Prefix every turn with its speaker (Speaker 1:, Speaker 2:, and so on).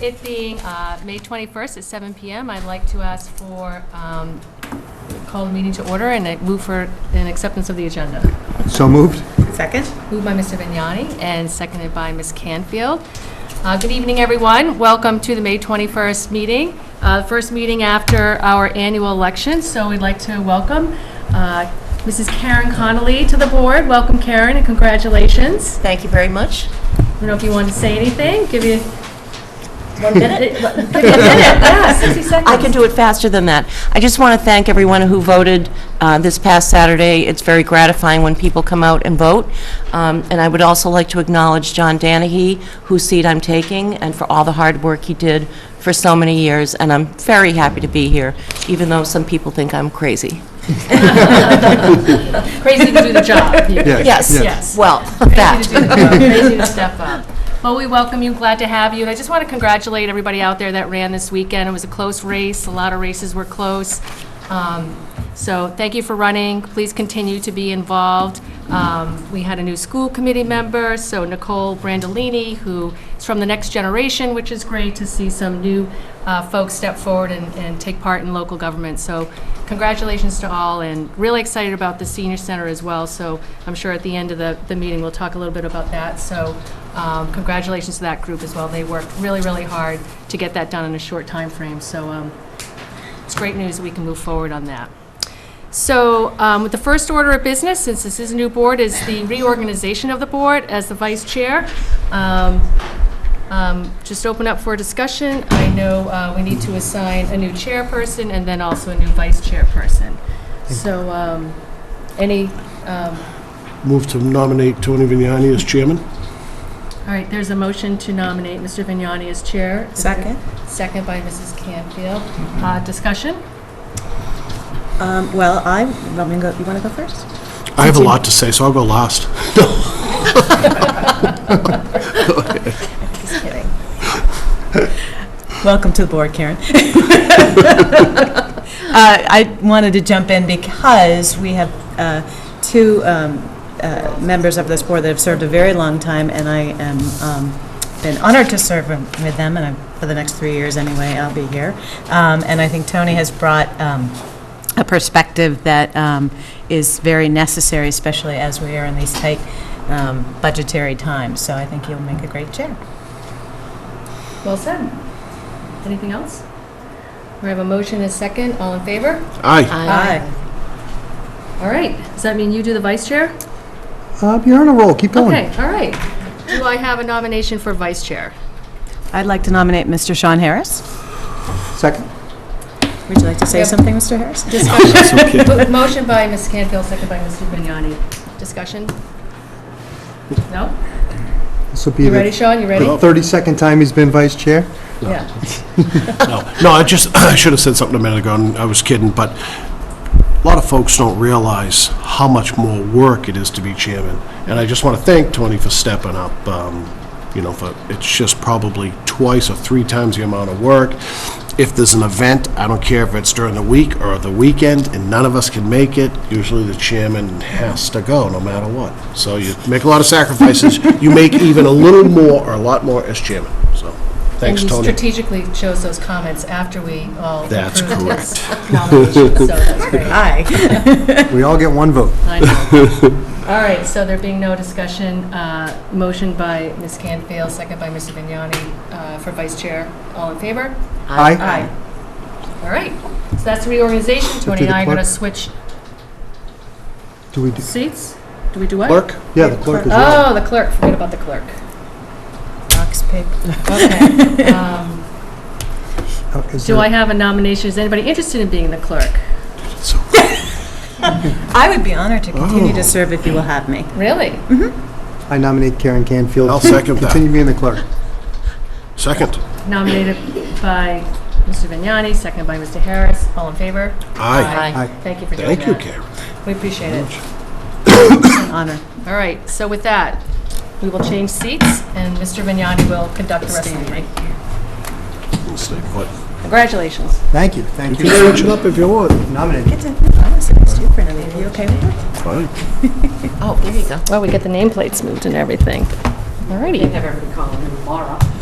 Speaker 1: It being uh, May 21st at 7 PM, I'd like to ask for, um, call the meeting to order and I move for an acceptance of the agenda.
Speaker 2: So moved?
Speaker 3: Second?
Speaker 1: Moved by Mr. Vignani and seconded by Ms. Canfield. Uh, Good evening, everyone. Welcome to the May 21st meeting, uh, the first meeting after our annual election. So we'd like to welcome uh, Mrs. Karen Connolly to the board. Welcome, Karen, and congratulations.
Speaker 3: Thank you very much.
Speaker 1: I don't know if you want to say anything, give you
Speaker 3: One
Speaker 1: a minute, yeah, 60 seconds.
Speaker 3: I can do it faster than that. I just want to thank everyone who voted uh, this past Saturday. It's very gratifying when people come out and vote. Um, And I would also like to acknowledge John Danahy, whose seat I'm taking, and for all the hard work he did for so many years. And I'm very happy to be here, even though some people think I'm crazy.
Speaker 1: Crazy to do the job.
Speaker 3: Yes.
Speaker 1: Yes.
Speaker 3: Well,
Speaker 1: Crazy
Speaker 3: that.
Speaker 1: to do the job, Crazy to step up. Well, we welcome you, glad to have you, and I just want to congratulate everybody out there that ran this weekend. It was a close race, a lot of races were close. Um, So thank you for running, please continue to be involved. Um, We had a new school committee member, so Nicole Brandolini, who is from the next generation, which is great to see some new uh, folks step forward and and take part in local government. So congratulations to all, and really excited about the senior center as well. So I'm sure at the end of the, the meeting, we'll talk a little bit about that. So um, congratulations to that group as well. They worked really, really hard to get that done in a short time frame. So um, it's great news, we can move forward on that. So um, the first order of business, since this is a new board, is the reorganization of the board as the vice chair. Um, um, Just open up for discussion. I know uh, we need to assign a new chairperson and then also a new vice chairperson. So um, any, um,
Speaker 4: Move to nominate Tony Vignani as chairman.
Speaker 1: all right, there's a motion to nominate Mr. Vignani as chair. Is there- Second by Mrs. Canfield. Uh, Discussion?
Speaker 5: Um, Well, I, want me to go- you want to go first?
Speaker 4: I have a lot to say, so I'll go last.
Speaker 5: Just kidding. Welcome to the board, Karen. Uh, I wanted to jump in because we have uh, two um, uh, members of this board that have served a very long time, and I am, um, been honored to serve with them, and I- for the next three years anyway, I'll be here. Um, And I think Tony has brought um, a perspective that um, is very necessary, especially as we are in these tight um, budgetary times. So I think you'll make a great chair.
Speaker 1: Well said. Anything else? We have a motion and a second. All in favor?
Speaker 4: Aye.
Speaker 1: All right. Does that mean you do the vice chair?
Speaker 2: Uh, You're on a roll, keep going.
Speaker 1: Okay, all right. Do I have a nomination for vice chair?
Speaker 5: I'd like to nominate Mr. Sean Harris.
Speaker 2: Second?
Speaker 5: Would you like to say
Speaker 1: Yep.
Speaker 5: something, Mr. Harris?
Speaker 1: Mo- Motion by Ms. Canfield, second by Mr. Vignani. Discussion? No?
Speaker 2: This will be
Speaker 1: You ready,
Speaker 2: the
Speaker 1: Sean? You ready?
Speaker 2: the 32nd time he's been vice chair.
Speaker 1: Yeah.
Speaker 4: No, no, I just, I should have said something a minute ago, and I was kidding, but a lot of folks don't realize how much more work it is to be chairman. And I just want to thank Tony for stepping up, um, you know, for, it's just probably twice or three times the amount of work. If there's an event, I don't care if it's during the week or the weekend, and none of us can make it, usually the chairman has to go, no matter what. So you make a lot of sacrifices. You make even a little more or a lot more as chairman, so,
Speaker 1: And
Speaker 4: thanks,
Speaker 1: you
Speaker 4: Tony.
Speaker 1: strategically chose those comments after we all
Speaker 4: That's
Speaker 1: approved
Speaker 4: correct.
Speaker 1: his nomination, so that's great.
Speaker 5: Aye.
Speaker 2: We all get one vote.
Speaker 1: I know. All right, so there being no discussion, uh, motion by Ms. Canfield, second by Mr. Vignani uh, for vice chair. All in favor?
Speaker 2: Aye.
Speaker 1: All right, so that's reorganization. Tony and I are going to switch
Speaker 2: Do we, do?
Speaker 1: seats. Do we do what?
Speaker 4: Clerk?
Speaker 2: yeah, the clerk as well.
Speaker 1: Oh, the clerk, forget about the clerk.
Speaker 5: Box paper.
Speaker 1: Okay. Um,
Speaker 2: Oh, is
Speaker 1: Do
Speaker 2: there-
Speaker 1: I have a nomination? Is anybody interested in being the clerk?
Speaker 5: I would be honored to continue to serve if you will have me.
Speaker 1: Really?
Speaker 2: I nominate Karen Canfield.
Speaker 4: I'll second that.
Speaker 2: Continue being the clerk.
Speaker 4: Second.
Speaker 1: Nominated by Mr. Vignani, seconded by Mr. Harris. All in favor?
Speaker 4: Aye.
Speaker 2: Aye.
Speaker 1: Thank you for doing that.
Speaker 4: Thank you, Karen.
Speaker 1: We appreciate it.
Speaker 5: An honor.
Speaker 1: All right, so with that, we will change seats, and Mr. Vignani will conduct the rest of the meeting.
Speaker 4: We'll stay put.
Speaker 1: Congratulations.
Speaker 2: Thank you, thank
Speaker 4: You
Speaker 2: you.
Speaker 4: can reach it up if you want.
Speaker 2: Nominated.
Speaker 5: It's a, I was against you for an interview. Are you okay with that?
Speaker 4: Fine.
Speaker 3: Oh, there you go.
Speaker 1: Well, we get the nameplates moved and everything. All righty.
Speaker 3: everybody calling him Laura.